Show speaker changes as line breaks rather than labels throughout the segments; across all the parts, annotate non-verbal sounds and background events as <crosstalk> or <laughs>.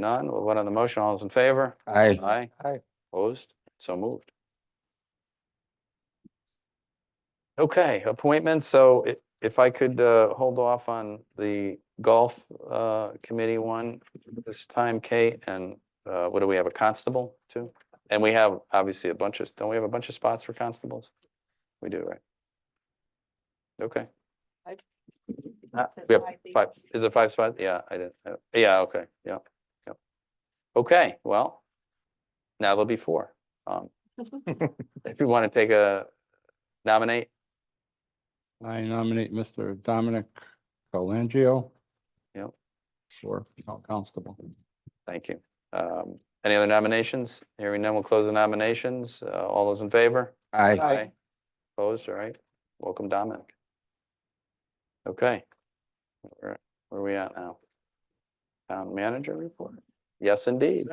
None. We'll vote on the motion. All those in favor?
Aye.
Aye.
Aye.
Opposed? So moved. Okay, appointments. So i- if I could uh, hold off on the golf uh, committee one this time, Kate, and uh, what do we have, a constable too? And we have obviously a bunch of, don't we have a bunch of spots for constables? We do, right? Okay. Uh,
It says
we have
five people.
Five, is it five spots? Yeah, I didn't, uh, yeah, okay, yeah, yeah. Okay, well, now there'll be four. Um, If you want to take a nominate,
I nominate Mr. Dominic Colangio.
Yep.
For town constable.
thank you. Um, Any other nominations? Hearing none, we'll close the nominations. Uh, All those in favor?
Aye.
Opposed, all right. Welcome, Dominic. Okay. Where where are we at now? Town manager report? Yes, indeed.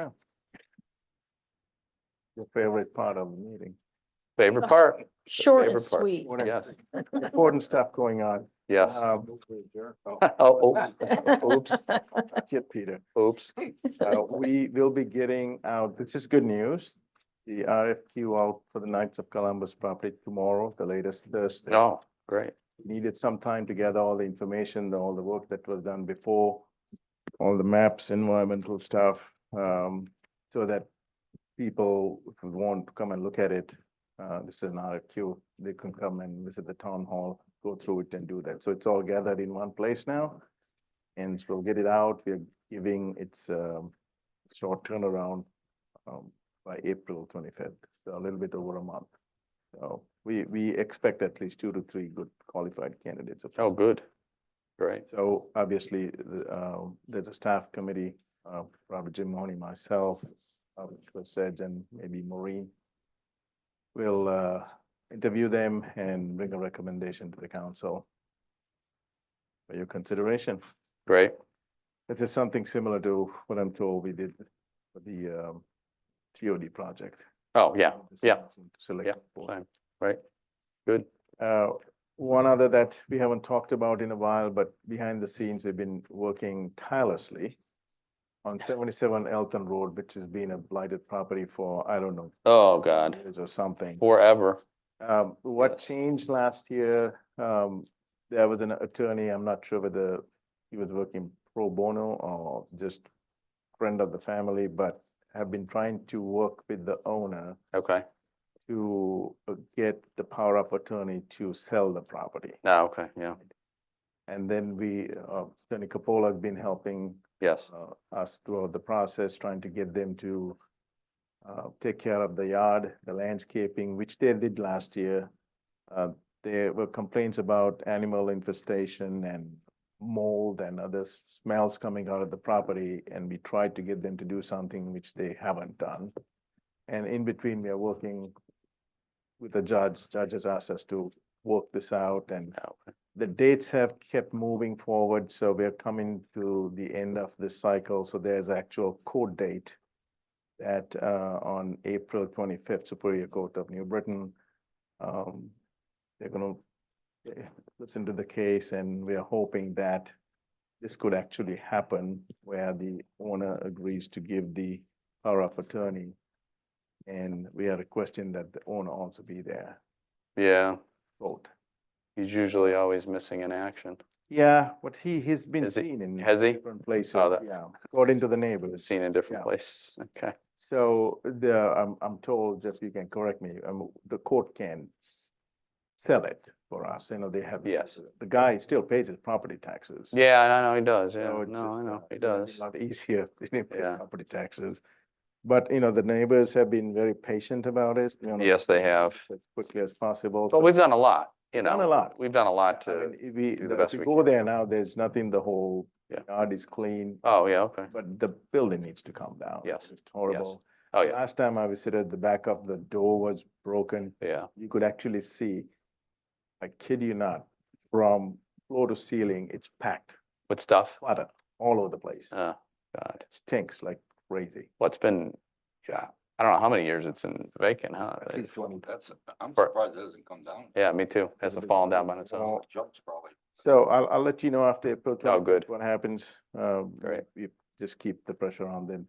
Your favorite part of the meeting.
Favorite part?
Short
favorite
and
part.
sweet.
What
Yes.
else? Important stuff going on.
Yes. <laughs>
Um, oh,
Oh, oops,
<laughs>
oops,
Get Peter. <laughs>
oops.
Uh, We will be getting out, this is good news. The RFQ out for the Knights of Columbus property tomorrow, the latest Thursday.
Oh, great.
Needed some time to gather all the information, all the work that was done before, all the maps, environmental stuff, um, so that people who want to come and look at it, uh, this is an RFQ, they can come and visit the town hall, go through it and do that. So it's all gathered in one place now. And so we'll get it out. We're giving its, um, short turnaround, um, by April twenty-fifth, so a little bit over a month. So we, we expect at least two to three good qualified candidates. of-
Oh, good. Great.
so obviously, the, um, there's a staff committee, uh, Robert Jim Mahoney, myself, Robert Switzer, and maybe Maureen. will uh, interview them and bring a recommendation to the council for your consideration.
Great.
This is something similar to what I'm told we did for the um, TOD project.
Oh, yeah, yeah,
Select.
yeah,
board.
fine, right. Good.
Uh, One other that we haven't talked about in a while, but behind the scenes, we've been working tirelessly on seventy-seven Elton Road, which has been a blighted property for, I don't know,
Oh, God,
years or something.
forever.
Um, what
Yes.
changed last year, um, there was an attorney, I'm not sure whether he was working pro bono or just friend of the family, but have been trying to work with the owner
Okay,
to uh, get the power of attorney to sell the property.
now, Ah, okay, yeah,
And then we, uh, Tony Capola has been helping
yes,
uh, us throughout the process, trying to get them to uh, take care of the yard, the landscaping, which they did last year. Uh, There were complaints about animal infestation and mold and other s- smells coming out of the property, and we tried to get them to do something which they haven't done. And in between, we are working with the judge. Judge has asked us to work this out and
now, Ah, okay,
the dates have kept moving forward, so we're coming to the end of this cycle, so there's actual court date that uh on April twenty-fifth, Superior Court of New Britain. Um, they're gonna eh, listen to the case and we are hoping that this could actually happen where the owner agrees to give the power of attorney. And we are requesting that the owner also be there,
yeah,
vote.
he's usually always missing in action.
Yeah, but he, he's been
Is it-
seen in.
has he? Oh,
Different places,
that-
yeah, according to the
We've
neighbors.
Seen in different
Yeah.
places, okay,
So the, I'm, I'm told, Jeff, you can correct me, um, the court can s- sell it for us, you know, they have.
Yes.
The guy still pays his property taxes.
yeah, I know, he does, yeah,
So it's
no, I
just,
know,
uh,
he
it's gonna be
does,
A lot easier <laughs> if they pay
Yeah.
property taxes. But, you know, the neighbors have been very patient about it. you know,
Yes, they have.
As quickly as possible.
but
so-
we've done a lot, you know.
Done a lot.
We've done a lot
I
to,
mean, if we,
do the
if
best
you
we
go there now, there's nothing, the whole
Yeah.
yard is clean.
oh, yeah, okay,
But the building needs to come down.
Yes,
It's horrible.
oh, yeah,
Last time I visited, the back of the door was broken.
yeah,
You could actually see, I kid you not, from floor to ceiling, it's packed,
with stuff,
clutter all over the place. It
oh, God,
stinks like crazy.
well, it's been, yeah, I don't know how many years it's in vacant, huh?
At least one.
That's, I'm
For-
surprised it hasn't come down.
Yeah, me too, hasn't
been
fallen down by itself.
Well,
Jumps probably.
So I'll, I'll let you know after April.
Oh,
12th
good.
What happens. Um,
Great.
We've just keep the pressure on them